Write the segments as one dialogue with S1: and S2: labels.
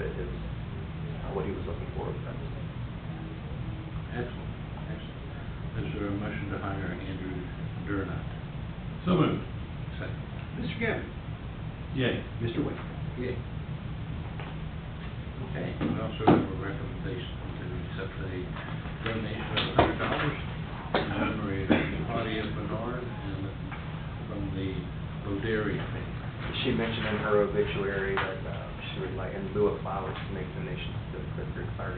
S1: uh, what he was looking for.
S2: Excellent, excellent. Is there a motion to hire Andrew Durant? So moved. Second.
S3: Mr. Gabbard?
S2: Yay.
S3: Mr. Wade?
S2: Yay. Okay, we also have a recommendation to accept a donation of hundred dollars in memory of Claudia Bernard and from the Boderi family.
S1: She mentioned in her obituary that uh, she would like, in lieu of flowers, to make donations to the Clifford Fire.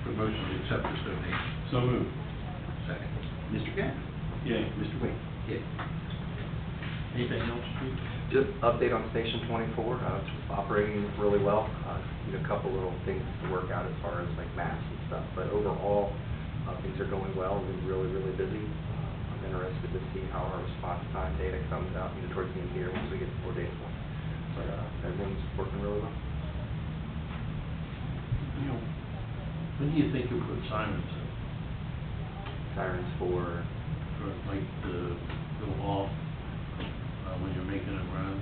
S2: Promotion to accept this donation.
S3: So moved.
S2: Second.
S3: Mr. Gabbard?
S2: Yay.
S3: Mr. Wade?
S2: Yay. Anything else, Chief?
S1: Just update on Station 24, uh, it's operating really well. Uh, Need a couple little things to work out as far as like maps and stuff, but overall, uh, things are going well, we're really, really busy. Uh, I'm interested to see how our response time data comes out, you know, towards the end of the year, once we get the four data points. But uh, everyone's working really well.
S2: You know, when do you think you'll put sirens up?
S1: Sirens for,
S2: for like the, the wall, uh, when you're making a run?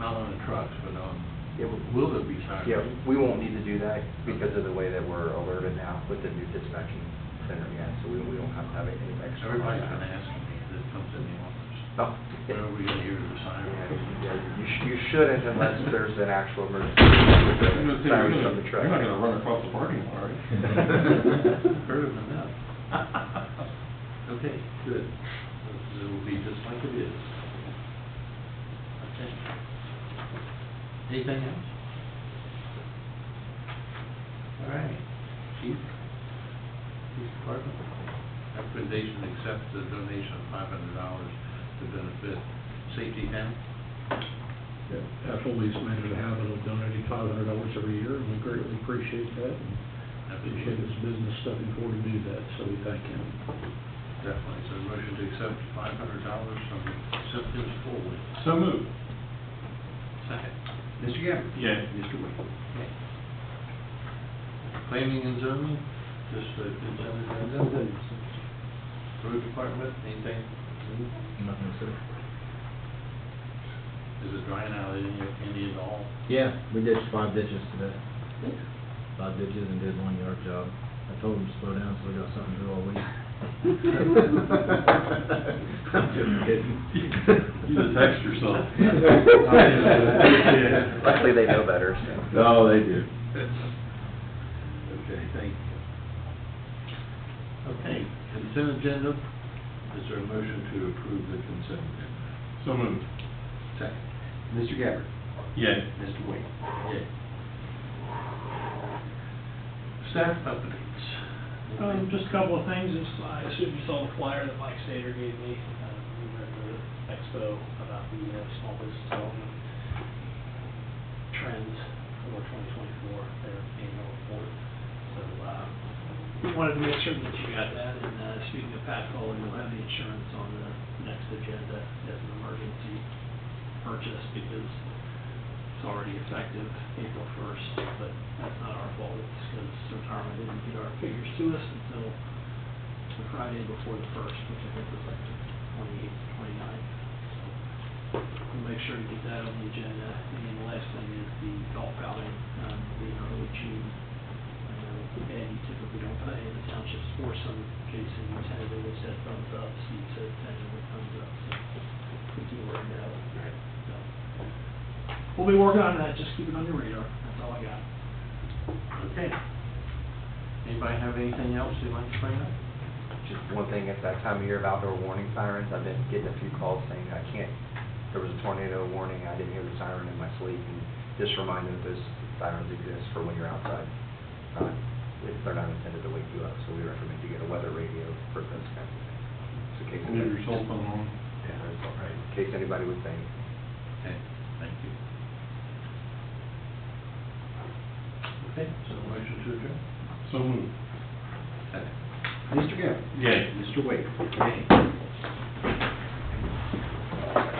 S2: Not on the trucks, but on,
S1: Yeah, we-
S2: will there be sirens?
S1: yeah, we won't need to do that because of the way that we're alerted now with the new dispatching center, yeah, so we we don't have to have any extra.
S2: Everybody's been asking me that comes in the office,
S1: No.
S2: when are we gonna hear the
S1: Yeah,
S2: siren?
S1: yeah, You sh- you shouldn't unless there's an actual emergency. Sirens on the truck.
S4: You're not gonna run across the parking lot, are you?
S2: Heard of enough. Okay, good. It'll be just like it is. Okay. Anything else? All right, chief, police department, recommendation to accept the donation of five hundred dollars to benefit Safety Town.
S5: Ethelby's made it a habit of donating five hundred dollars every year, and we greatly appreciate that. and Appreciate his business stepping forward to do that, so we thank him.
S2: Definitely, so motion to accept five hundred dollars from Simpkins Forward.
S4: So moved.
S2: Second.
S3: Mr. Gabbard?
S4: Yay.
S3: Mr. Wade?
S2: Planning and zoning, just a consent agenda. Road department, anything?
S6: Nothing, sir.
S2: Is it drying out any, any at all?
S6: Yeah, we did five ditches today. Five ditches and did one yard job. I told them to slow down, so we got something to do all week. I'm just kidding.
S4: You just text yourself.
S1: Luckily, they know better, so.
S6: No, they do.
S2: Okay, thank you. Okay, consent agenda, is there a motion to approve the consent agenda?
S4: So moved.
S2: Second.
S3: Mr. Gabbard?
S4: Yay.
S3: Mr. Wade?
S2: Yay. Staff updates.
S7: Um, just a couple of things, It's- I assume you saw the flyer that Mike Stater gave me, uh, we were at the expo about the uh, small business development trends for twenty twenty-four, their annual report. So, uh, we wanted to make sure that you got that, and, uh, speaking of Pat Foley, you'll have the insurance on the next agenda as an emergency purchase, because it's already effective April first, but that's not our fault, it's because Centerma didn't get our figures to us until the Friday before the first, which I think was like the twenty-eighth, twenty-ninth. We'll make sure to get that on the agenda, and then the last thing is the golf outing, um, will be in early June. I know Ed, you typically don't pay in the township sports, some Jason tentatively said thumbs up, Steve said tentatively thumbs up, so we do work that out, so. We'll be working on that, just keep it on your radar, that's all I got.
S2: Okay. Anybody have anything else they'd like to bring up?
S1: Just one thing, at that time of year of outdoor warning sirens, I've been getting a few calls saying, I can't, there was a tornado warning, I didn't hear the siren in my sleep, and just remind them that those sirens exist for when you're outside. Uh, if They're not intended to wake you up, so we recommend you get a weather radio for those kinds of things. So in case
S4: Leave your cell phone on.
S1: Yeah, that's all right. In case anybody would think.
S2: Okay, thank you. Okay, so motion to adjourn?
S4: So moved.
S2: Second.
S3: Mr. Gabbard?
S4: Yay.
S3: Mr. Wade?
S2: Okay.